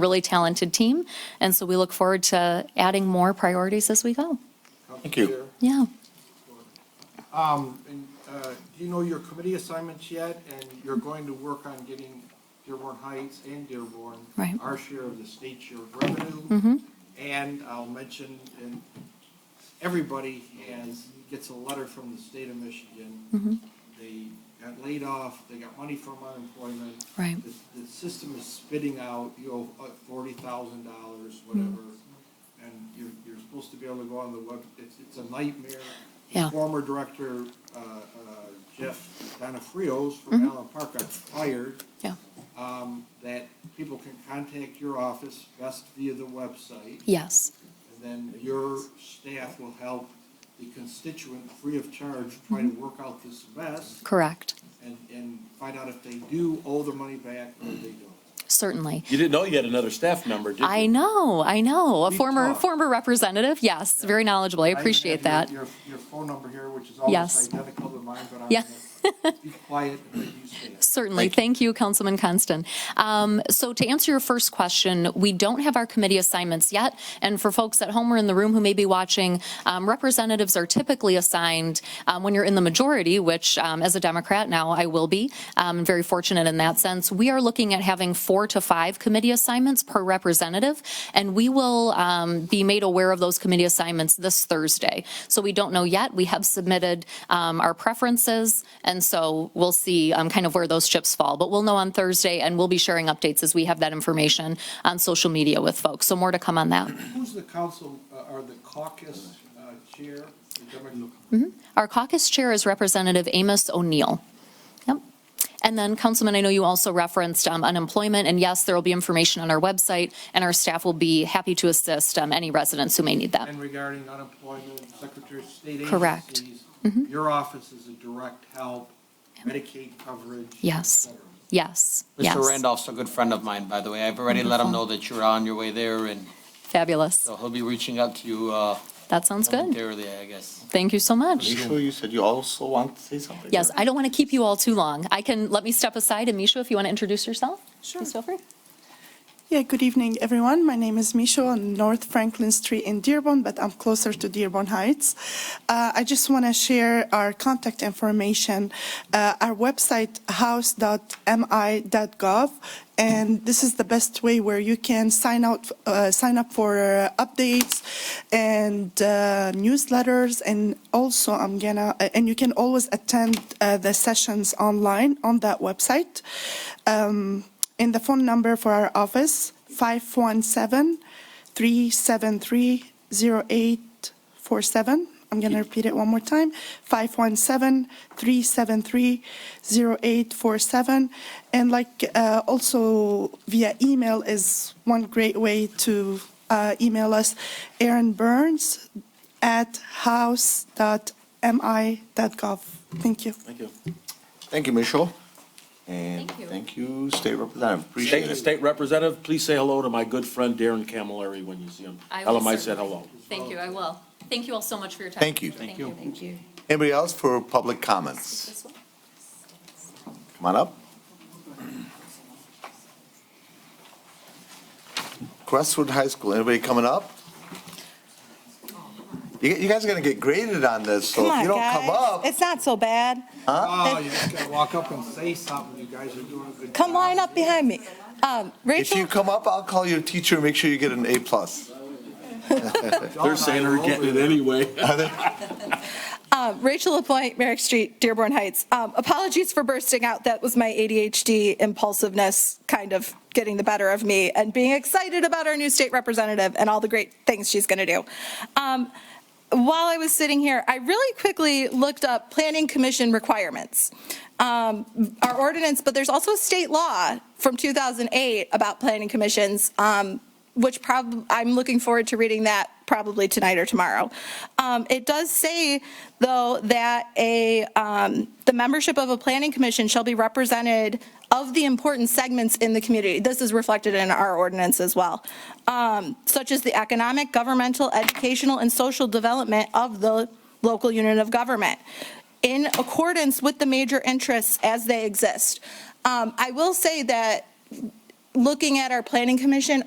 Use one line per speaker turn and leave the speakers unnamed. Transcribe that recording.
really talented team. And so we look forward to adding more priorities as we go.
Thank you.
Yeah.
Um, and, uh, do you know your committee assignments yet? And you're going to work on getting Dearborn Heights and Dearborn.
Right.
Our share of the state share of revenue. And I'll mention, and everybody has, gets a letter from the state of Michigan. They got laid off, they got money from unemployment.
Right.
The, the system is spitting out, you know, uh, forty thousand dollars, whatever.
Hmm.
And you're, you're supposed to be able to go on the web, it's, it's a nightmare.
Yeah.
Former director, uh, uh, Jeff Donafrios from Allen Park got fired
Mm-hmm. Yeah.
um, that people can contact your office best via the website,
Yes.
and then your staff will help the constituent free of charge try to
Mm-hmm.
work out this mess
Correct.
and, and find out if they do owe the money back or they don't.
Certainly.
You didn't know you had another staff member, did you?
I know. I know. A
We've
former
talked.
former representative. Yes. Very knowledgeable. I
even
appreciate
have
that.
Your, your your phone number here, which is
Yes.
almost identical to mine, but I'm
Yeah.
gonna be quiet and let you say it.
Certainly. Thank you, Councilman Constant. Um, So to answer your first question, we don't have our committee assignments yet. And for folks at home or in the room who may be watching, um, representatives are typically assigned um, when you're in the majority, which um, as a Democrat now I will be, um, very fortunate in that sense. We are looking at having four to five committee assignments per representative. And we will um, be made aware of those committee assignments this Thursday. So we don't know yet. We have submitted um, our preferences. And so we'll see um, kind of where those chips fall. But we'll know on Thursday and we'll be sharing updates as we have that information on social media with folks. So more to come on that.
Who's the council, uh, or the caucus uh, chair? The Democrat-
Our caucus chair is Representative Amos O'Neill. Yep. And then, Councilman, I know you also referenced um, unemployment, and yes, there will be information on our website, and our staff will be happy to assist um, any residents who may need that.
And regarding unemployment, Secretary of State
Correct. Mm-hmm.
agencies, your office is a direct help, Medicaid coverage. et
Yes.
cetera.
Yes, yes.
Mr. Randolph's a good friend of mine, by the way. I've already let him know that you're on your way there, and
Fabulous.
so he'll be reaching out to you uh,
That sounds good.
momentarily, I guess.
Thank you so much.
Sure, you said you also want to say something?
Yes, I don't want to keep you all too long. I can, let me step aside, and Misha, if you want to introduce yourself?
Sure.
Please feel free.
Yeah, good evening, everyone. My name is Michelle on North Franklin Street in Dearborn, but I'm closer to Dearborn Heights. Uh, I just want to share our contact information, uh, our website, house.mi.gov. And this is the best way where you can sign out, uh, sign up for uh, updates and uh, newsletters. And also, I'm gonna, uh, and you can always attend uh, the sessions online on that website. Um, and the phone number for our office, 517-373-0847. I'm going to repeat it one more time, 517-373-0847. And like, uh, also via email is one great way to uh, email us, Aaron Burns at house.mi.gov. Thank you.
Thank you. Thank you, Michelle. And
Thank you.
thank you, State Representative, appreciate
State,
it.
state representative, please say hello to my good friend Darren Camilleri when you see him.
I
Tell
will
him I said
certainly.
hello.
Thank you, I will. Thank you all so much for your time.
Thank you.
Thank you. Thank you.
Anybody else for public comments?
This one?
Come on up. Crestwood High School, anybody coming up? You, you guys are gonna get graded on this, so
Come
if
on,
you don't come
guys.
up,
It's not so bad.
Oh, you just gotta walk up and say something, you guys are doing a good job.
Come line up behind me. Um,
if you
Rachel,
come up, I'll call your teacher and make sure you get an A plus.
They're saying they're getting it anyway.
uh, Rachel LaPointe, Merrick Street, Dearborn Heights. Um, apologies for bursting out. That was my ADHD impulsiveness kind of getting the better of me and being excited about our new state representative and all the great things she's going to do. Um, while I was sitting here, I really quickly looked up planning commission requirements. Um, our ordinance, but there's also a state law from 2008 about planning commissions. Um, which prob, I'm looking forward to reading that probably tonight or tomorrow. Um, it does say, though, that a, um, the membership of a planning commission shall be represented of the important segments in the community. This is reflected in our ordinance as well, um, such as the economic, governmental, educational, and social development of the local unit of government in accordance with the major interests as they exist. Um, I will say that looking at our planning commission,